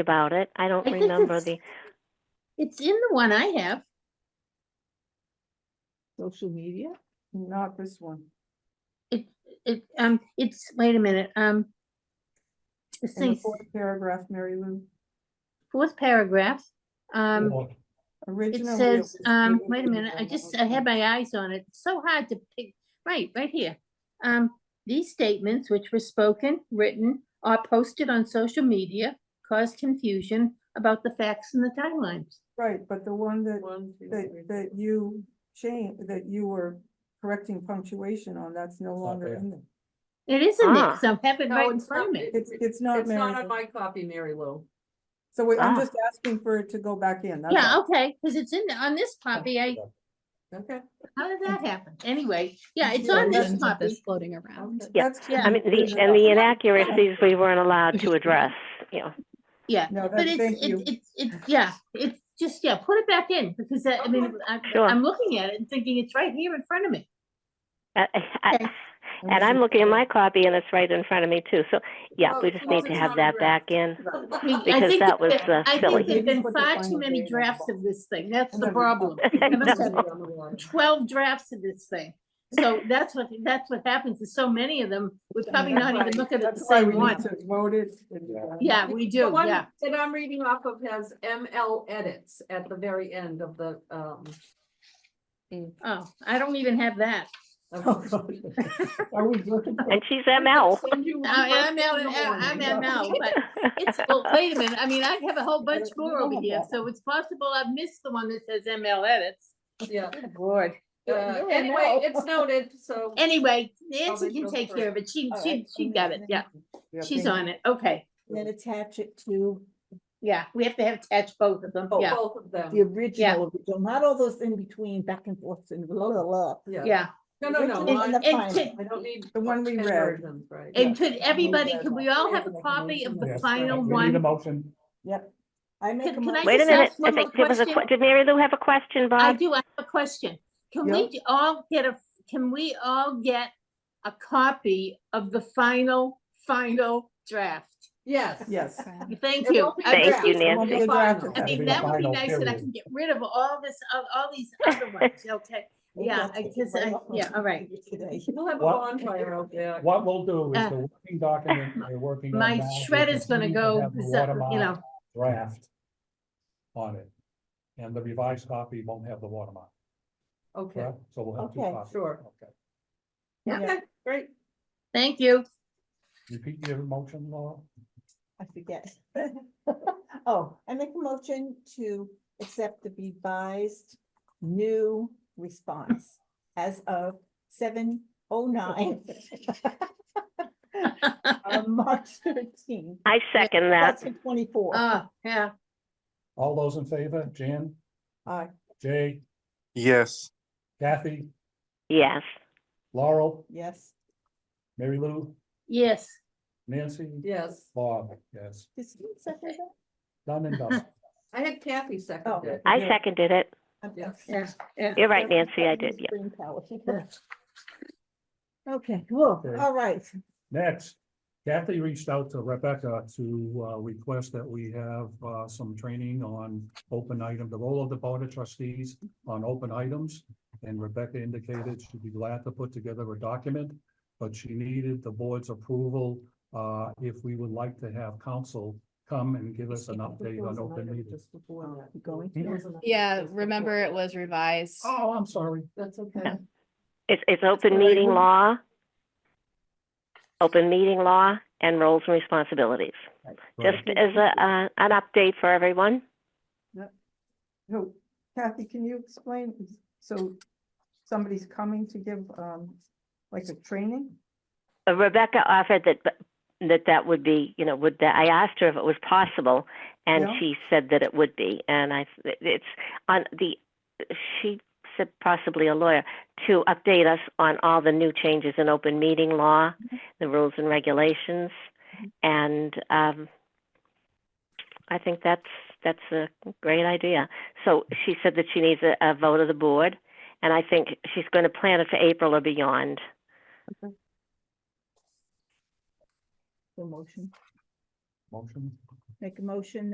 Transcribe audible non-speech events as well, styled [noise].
about it. I don't I think remember it's- the, It's in the one I have. Social media? Not this one. It, it, um, it's, wait a minute, um. This In the thing's fourth paragraph, Mary Lou. fourth paragraph, um, Well, it Originally, says, was um, given wait a to minute, I John just, I had Lewis. my eyes on it, It's so hard to pick, right, right here. Um, these statements which were spoken, written, or posted on social media cause confusion about the facts and the timelines. Right, but the one that, One, two, that, three. that you changed, that you were correcting punctuation on, that's no not longer there. in there. It isn't Ah. it, so I have it No, right in it's front of not. me. It's, it's not It's not Mary on Lou. my copy, Mary Lou. So wait, I'm Ah. just asking for it to go back in. that's Yeah, all. okay, because it's in, the- on this copy, I, Okay. how did that happen? Anyway, yeah, it's Yeah, on this versions of copy. this floating around. [laughs] Yeah, That's I I mean, the, and the inaccuracies we weren't allowed to address, you know. Yeah, No, but that, it's, thank you. it- it's, it's, yeah, it's just, yeah, put it back in, because I I mean, I- Sure. I'm looking at it and thinking it's right here in front of me. I- I- Okay. And I'm looking at my copy and it's right in front of me too. So, yeah, Well, we as just long need as to it's have not that addressed. back in. I mean, I Because think that was, that- uh, I silly. think there've been Put the far final too many date on the drafts box. of this thing, that's the [laughs] Another problem. I I must know. have Twelve drafts of this thing, [laughs] so that's what, that's what happens, there's so many of them, we're probably that's not even why- looking at the That's why we same need one. to vote it. and, uh, Yeah, we The do, one yeah, That I'm reading off of has ML edits at the very end of the, um. oh, I don't even have that. Oh, of- Are we looking? for- And she's ML. Send you one I- I'm version out, in the I'm morning. out now, but [laughs] It's, well, wait a minute, I mean, I have a whole bunch more over here, so it's possible I've missed the one that says ML edits. Yeah, Lord. uh, You're an ML. anyway, it's noted, so. Anyway, I'll Nancy make can those take care of it, she, All she, right, she and got it, then- yeah, Yeah, she's thank on it, okay, you. Then attach it to yeah, we have to have attached both of them, [laughs] yeah, Both of the them, original, original, not all those in between, back and forth and blah, blah, blah. yeah. yeah. No, no, no, Original I and the and final. I don't need. The one we 10 read. versions, Right. And could everybody, Yeah. could we all have a copy of the yes, final we Need one? a motion. Yep. I make Can- a can motion- I Wait a just minute, asked I one more think there was a, que- question. did Mary Lou have a question, I Bob? do, I have a question, can we j- all get a, can we all get a copy of the final, final draft? Yes. Yes. Okay. Thank It you. won't be I a Thank draft. you, draft, It won't Nancy. be a draft I attack. That'd be mean, the that would be final nice that I period. can get rid of all this, of all these other [laughs] ones, okay? Yeah, I guess, I- yeah, all right. Today. We'll have a What- bonfire out there. What we'll do is Uh, the [laughs] working document we're working on. My now, we'll shredder's gonna continue to go, have the so- you watermark know, Draft on it. And the revised copy won't have the watermark, Okay, correct? So we'll have two Okay. copies. Sure. Okay. Yeah. okay, great. thank you. Repeat your motion, Laura. I forget. [laughs] Oh, I make a motion to accept the revised new response as of seven oh nine. [laughs] On March thirteenth, I second that. that's twenty-four. Oh, yeah, All those in favor, Jan? Aye. Jay, Yes, Kathy, Yes, Laurel, Yes, Mary Lou, yes. Nancy, Yes, Bob, yes, Does someone second that? done and done. I had Kathy Oh. second it. I Yeah. seconded it. I'm- Yes. Yeah, yeah. You're right, Okay, Nancy, I that means did, yeah. brain power. Okay, cool, Okay. all right. Next, Kathy reached out to Rebecca to uh, request that we have uh, some training on open item, the role of the board of trustees on open items. And Rebecca indicated she'd be glad to put together a document, but she needed the board's approval uh, if we would like to have council come and give us an update on open meetings. Going Hmm? Yeah, remember it was revised. Oh, I'm sorry. That's okay. It's, it's open meeting law, open meeting law and roles and responsibilities. Just as a, uh, an update for everyone. So Kathy, can you explain, so somebody's coming to give um like a training? Uh, Rebecca offered that, that that would be, you know, would that, I asked her if it was possible, and Yeah. she said that it would be. And I, it's on the, she said possibly a lawyer, to update us on all the new changes in open meeting law, the rules and regulations. And um, I think that's, that's a great idea. So she said that she needs a, a vote of the board, and I think she's going to plan it for April or beyond. The motion, Motion? make a motion